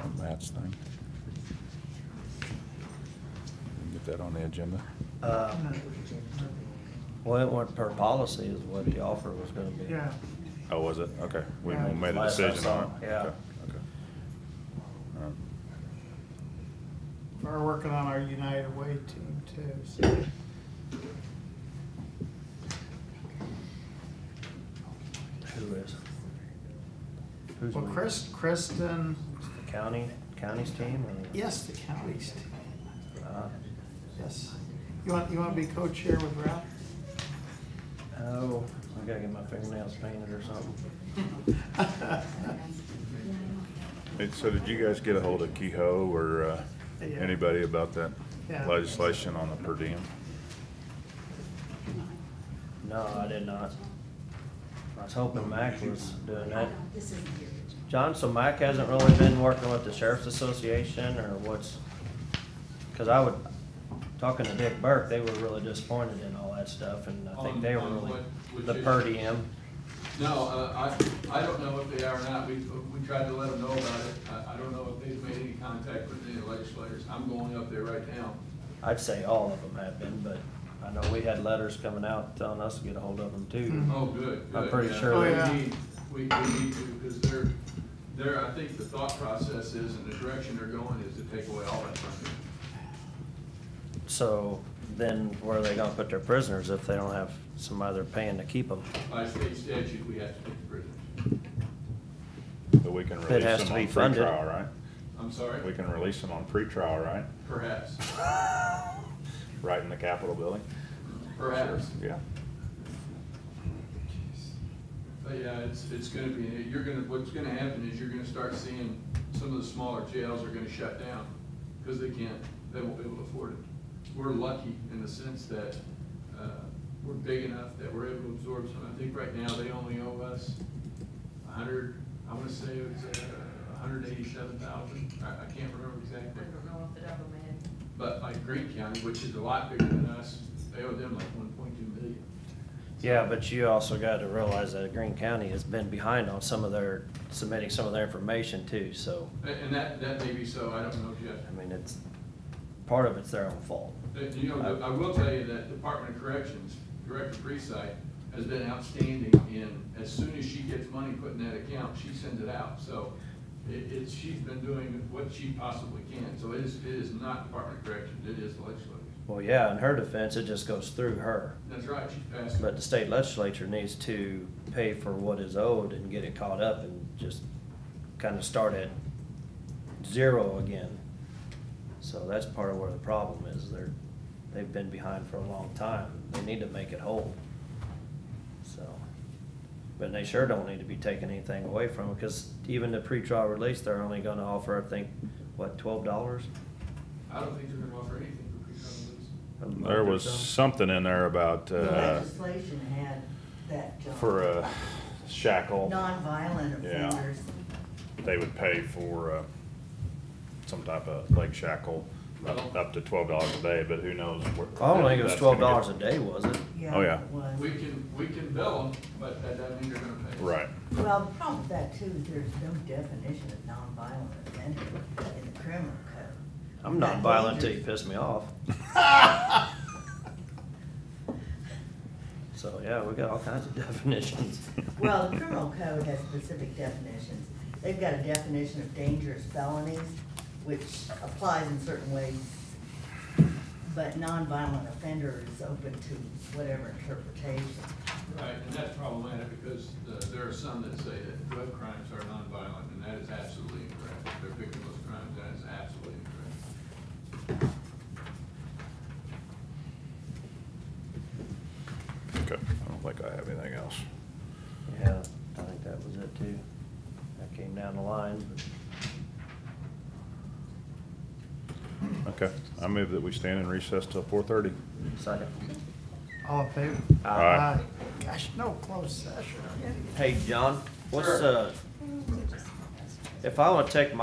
on Matt's thing. We can Get that on the agenda. Uh, Well, it went per policy is what the offer was gonna be. Yeah, Oh, was it? Okay. We Yeah. made a Last I decision on saw, it. yeah. Okay, okay. Um, we're working on our United Way team too, so. Who is? Who's Well, we? Chris, Kristen, The county, county's team or? yes, the county's team, Uh, yes. You want, you want to be co-chair with Ralph? Oh, I gotta get my fingernails painted or something. and So did you guys get a hold of Kehoe or uh, Yeah. anybody about that Yeah. legislation on the per diem? No, I did not. I was hoping Mac was doing that. This isn't the original. John, so Mac hasn't really been working with the sheriff's association or what's? Cause I would, talking to Dick Burke, they were really disappointed in all that stuff and I think On- they were on really, what- the which per issue? diem. No, uh, I, I don't know if they are or not. We, we tried to let them know about it. I, I don't know if they've made any contact with any legislators. I'm going up there right now. I'd say all of them have been, but I know we had letters coming out telling us to get a hold of them too. Oh, good, good. I'm pretty yeah. sure Oh, We yeah. need- We, we need to, because they're, they're, I think the thought process is and the direction they're going is to take away all that funding. So then where are they gonna put their prisoners if they don't have somebody they're paying to keep them? By state statute, we have to take the prisoners. But we can It release has them to be on funded. pretrial, right? I'm We sorry, can release them on pretrial, right? perhaps, Right in the Capitol building? perhaps. Yeah. But yeah, it's, it's gonna be, you're gonna, what's gonna happen is you're gonna start seeing some of the smaller jails are gonna shut down, because they can't, they won't be able to afford it. We're lucky in the sense that, uh, we're big enough that we're able to absorb some, I think right now they only owe us a hundred, I wanna say it's uh, a hundred eighty-seven thousand, I, I can't remember I exactly. don't know off the top of my head. But like Green County, which is a lot bigger than us, they owe them like one point two million. Yeah, but you also gotta realize that Green County has been behind on some of their, submitting some of their information too, so, And, and that, that may be so, I don't know, Jeff. I mean, it's, part of it's their own fault. Uh, You know, I will tell you that Department of Corrections, Director Preside, has been outstanding in, as soon as she gets money put in that account, she sends it out. So it, it's, she's been doing what she possibly can. So it is, it is not Department of Corrections, it is the legislature. Well, yeah, in her defense, it just goes through her, That's right, she passed it. but the state legislature needs to pay for what is owed and get it caught up and just kinda start at zero again. So that's part of where the problem is, they're, they've been behind for a long time, they need to make it whole. So, but they sure don't need to be taking anything away from them, cause even the pretrial release, they're only gonna offer, I think, what, twelve dollars? I don't think they're gonna offer anything for pre-trial release. There was something in there about, The uh, legislation had that. uh, for a shackle. Nonviolent Yeah. offenders. they would pay for uh, some type of leg shackle, up up to twelve dollars a day, but who knows? where- I don't think it was that's gonna twelve get- dollars a day, was it? Oh, yeah. it was. We can, we can bill them, but that doesn't mean they're gonna pay. us. Right, Well, the problem with that too, is there's no definition of nonviolent offender in the criminal code. I'm not violent till you piss me off. So, yeah, we got all kinds of definitions. Well, the criminal code has specific definitions. They've got a definition of dangerous felonies, which applies in certain ways. But nonviolent offender is open to whatever interpretation. Right, and that's problematic because uh, there are some that say that drug crimes are nonviolent, and that is absolutely incorrect. If They're victimless crimes, that is absolutely incorrect. okay, I don't think I have anything else. Yeah, I think that was it too. That came down the line, Okay, I move that we stand in recess till four thirty. but second. All in favor? Aye. Aye. Gosh, no closed session. Hey, John, what's, Sure. uh, if I wanna take my